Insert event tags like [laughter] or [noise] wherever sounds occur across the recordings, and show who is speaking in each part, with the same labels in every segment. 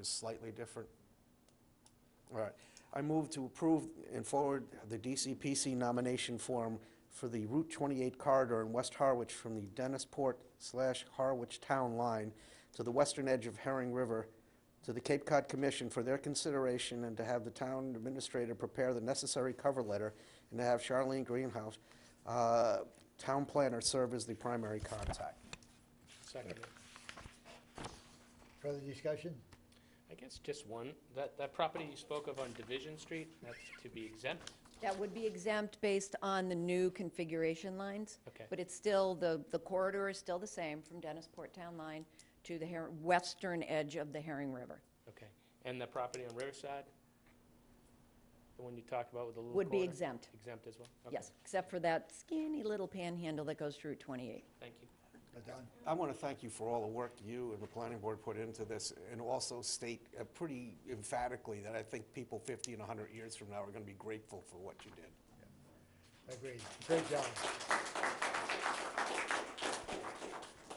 Speaker 1: is slightly different. All right. I move to approve and forward the DCPC nomination form for the Route 28 corridor in West Harwich from the Dennisport slash Harwich Town Line to the western edge of Herring River to the Cape Cod Commission for their consideration and to have the town administrator prepare the necessary cover letter and to have Charlene Greenhouse, uh, town planner, serve as the primary contact.
Speaker 2: Second.
Speaker 3: Further discussion?
Speaker 2: I guess just one, that, that property you spoke of on Division Street, that's to be exempt?
Speaker 4: That would be exempt based on the new configuration lines.
Speaker 2: Okay.
Speaker 4: But it's still, the, the corridor is still the same from Dennisport Town Line to the Her- western edge of the Herring River.
Speaker 2: Okay. And the property on Riverside? The one you talked about with the little
Speaker 4: Would be
Speaker 2: corner?
Speaker 4: exempt.
Speaker 2: Exempt as well? Okay.
Speaker 4: Yes, except for that skinny little panhandle that goes through Route 28.
Speaker 2: Thank you.
Speaker 3: Don?
Speaker 1: I want to thank you for all the work you and the planning board put into this, and also state uh, pretty emphatically that I think people 50 and 100 years from now are going to be grateful for what you did.
Speaker 3: Agreed. Great job.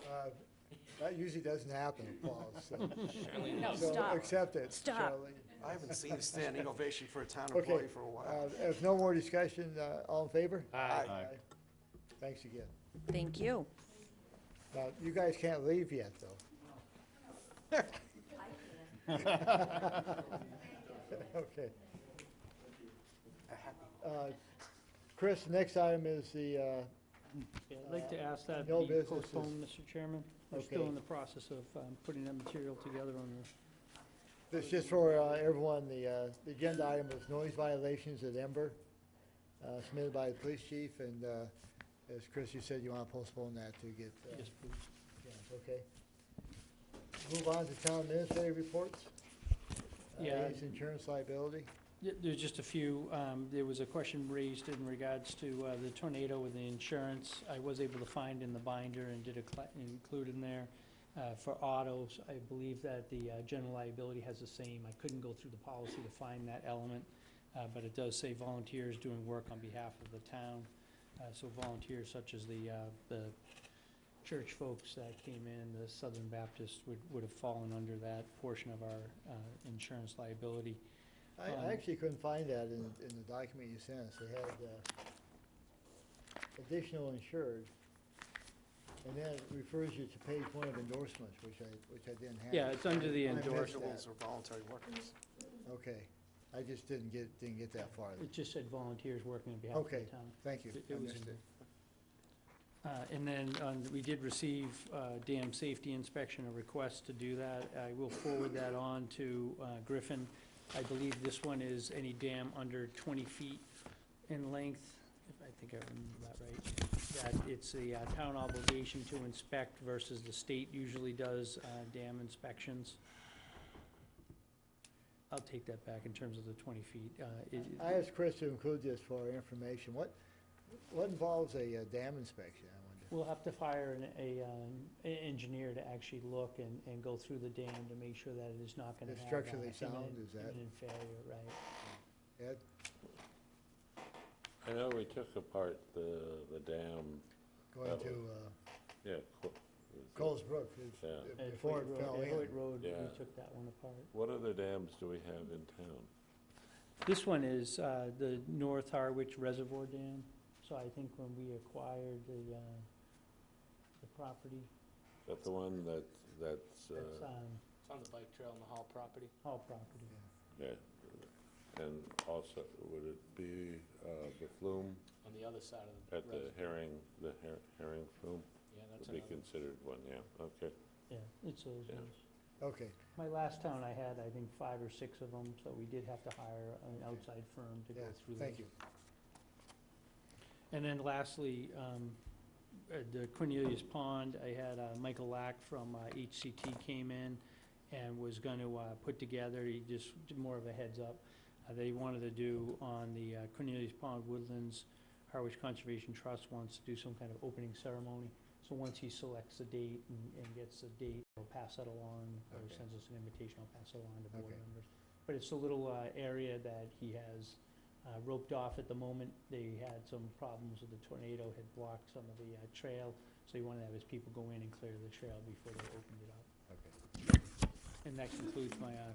Speaker 3: Uh, That usually doesn't happen, Paul, so.
Speaker 4: No,
Speaker 3: so
Speaker 4: stop.
Speaker 3: accept it,
Speaker 4: Stop.
Speaker 3: Charlie.
Speaker 1: I haven't seen a standing ovation for a town
Speaker 3: Okay.
Speaker 1: employee for a while.
Speaker 3: uh, If no more discussion, uh, all in favor?
Speaker 2: Aye.
Speaker 3: Aye. Thanks again.
Speaker 4: Thank you.
Speaker 3: Now, you guys can't leave yet, though. [laughs] Okay. Uh, Chris, next item is the, uh,
Speaker 5: Yeah, I'd like to ask that
Speaker 3: No
Speaker 5: be
Speaker 3: business is-
Speaker 5: postponed, Mr. Chairman. We're
Speaker 3: Okay.
Speaker 5: still in the process of um, putting that material together on the
Speaker 3: This just for uh, everyone, the, uh, the agenda item was noise violations at Ember, uh, submitted by the police chief, and uh, as Chris, you said you want to postpone that to get. uh,
Speaker 5: Yes, please.
Speaker 3: yeah, Okay. Move on to town administrative reports. Uh,
Speaker 5: Yeah.
Speaker 3: Ace insurance liability.
Speaker 5: Yeah, There's just a few, um, there was a question raised in regards to uh, the tornado with the insurance. I was able to find in the binder and did a cla- include in there uh, for autos. I believe that the uh, general liability has the same. I couldn't go through the policy to find that element, uh, but it does say volunteers doing work on behalf of the town. Uh, So volunteers such as the, uh, the church folks that came in, the Southern Baptists would, would have fallen under that portion of our uh, insurance liability.
Speaker 3: I,
Speaker 5: Um,
Speaker 3: I actually couldn't find that in, in the document you sent us. They had uh, additional insured. And then it refers you to page one of endorsements, which I, which I didn't have.
Speaker 5: Yeah, it's under the
Speaker 3: I missed that.
Speaker 5: endorsement.
Speaker 1: Individuals or voluntary workers.
Speaker 3: Okay, I just didn't get, didn't get that far.
Speaker 5: It just said volunteers working on behalf of the
Speaker 3: Okay,
Speaker 5: town.
Speaker 3: thank you,
Speaker 5: It-
Speaker 3: I
Speaker 5: it was
Speaker 3: missed
Speaker 5: in
Speaker 3: it.
Speaker 5: Uh, And then um, we did receive uh, dam safety inspection, a request to do that. I will forward that on to uh, Griffin. I believe this one is any dam under 20 feet in length, if I think I remember that right. That it's a uh, town obligation to inspect versus the state usually does uh, dam inspections. I'll take that back in terms of the 20 feet. Uh, it-
Speaker 3: I asked Chris to include this for our information. What, what involves a uh, dam inspection, I wonder?
Speaker 5: We'll have to hire an, a, um, e- engineer to actually look and, and go through the dam to make sure that it is not gonna
Speaker 3: It's
Speaker 5: have.
Speaker 3: structurally
Speaker 5: uh,
Speaker 3: sound,
Speaker 5: imminent-
Speaker 3: is that-
Speaker 5: Imminent failure, right.
Speaker 3: Ed?
Speaker 6: I know we took apart the, the dam,
Speaker 3: Going
Speaker 6: That
Speaker 3: to uh,
Speaker 6: yeah. Co-
Speaker 3: Coles Brook, if-
Speaker 6: Yeah.
Speaker 3: if-
Speaker 5: At
Speaker 3: before
Speaker 5: Hoyt
Speaker 3: it
Speaker 5: Road-
Speaker 3: fell
Speaker 5: at Hoyt
Speaker 3: in.
Speaker 5: Road,
Speaker 6: Yeah.
Speaker 5: we took that one apart.
Speaker 6: What other dams do we have in town?
Speaker 5: This one is, uh, the North Harwich Reservoir Dam, so I think when we acquired the, uh, the property,
Speaker 6: Is that the one that, that's,
Speaker 5: that's,
Speaker 6: uh,
Speaker 5: um,
Speaker 2: It's on the bike trail on the Hall property.
Speaker 5: Hall property.
Speaker 6: yeah, and also, would it be uh, the flume
Speaker 2: On the other side of the.
Speaker 6: at the
Speaker 2: road.
Speaker 6: herring, the her- herring flume?
Speaker 2: Yeah, that's
Speaker 6: Would be
Speaker 2: another.
Speaker 6: considered one, yeah, okay.
Speaker 5: Yeah, it's those
Speaker 6: Yeah.
Speaker 5: ones.
Speaker 3: Okay,
Speaker 5: My last town, I had, I think, five or six of them, so we did have to hire an outside firm to go
Speaker 3: yeah,
Speaker 5: through those.
Speaker 3: thank you.
Speaker 5: And then lastly, um, at the Cornelius Pond, I had uh, Michael Lack from uh, HCT came in and was going to put together, he just did more of a heads up. uh, They wanted to do on the uh, Cornelius Pond Woodlands, Harwich Conservation Trust wants to do some kind of opening ceremony. So once he selects the date and- and gets the date, he'll pass that along, or
Speaker 3: Okay.
Speaker 5: sends us an invitation, I'll pass it along to board
Speaker 3: Okay.
Speaker 5: members. But it's a little uh, area that he has uh, roped off at the moment. They had some problems with the tornado, had blocked some of the uh, trail, so he wanted to have his people go in and clear the trail before they opened it up.
Speaker 3: Okay.
Speaker 5: And that concludes my uh,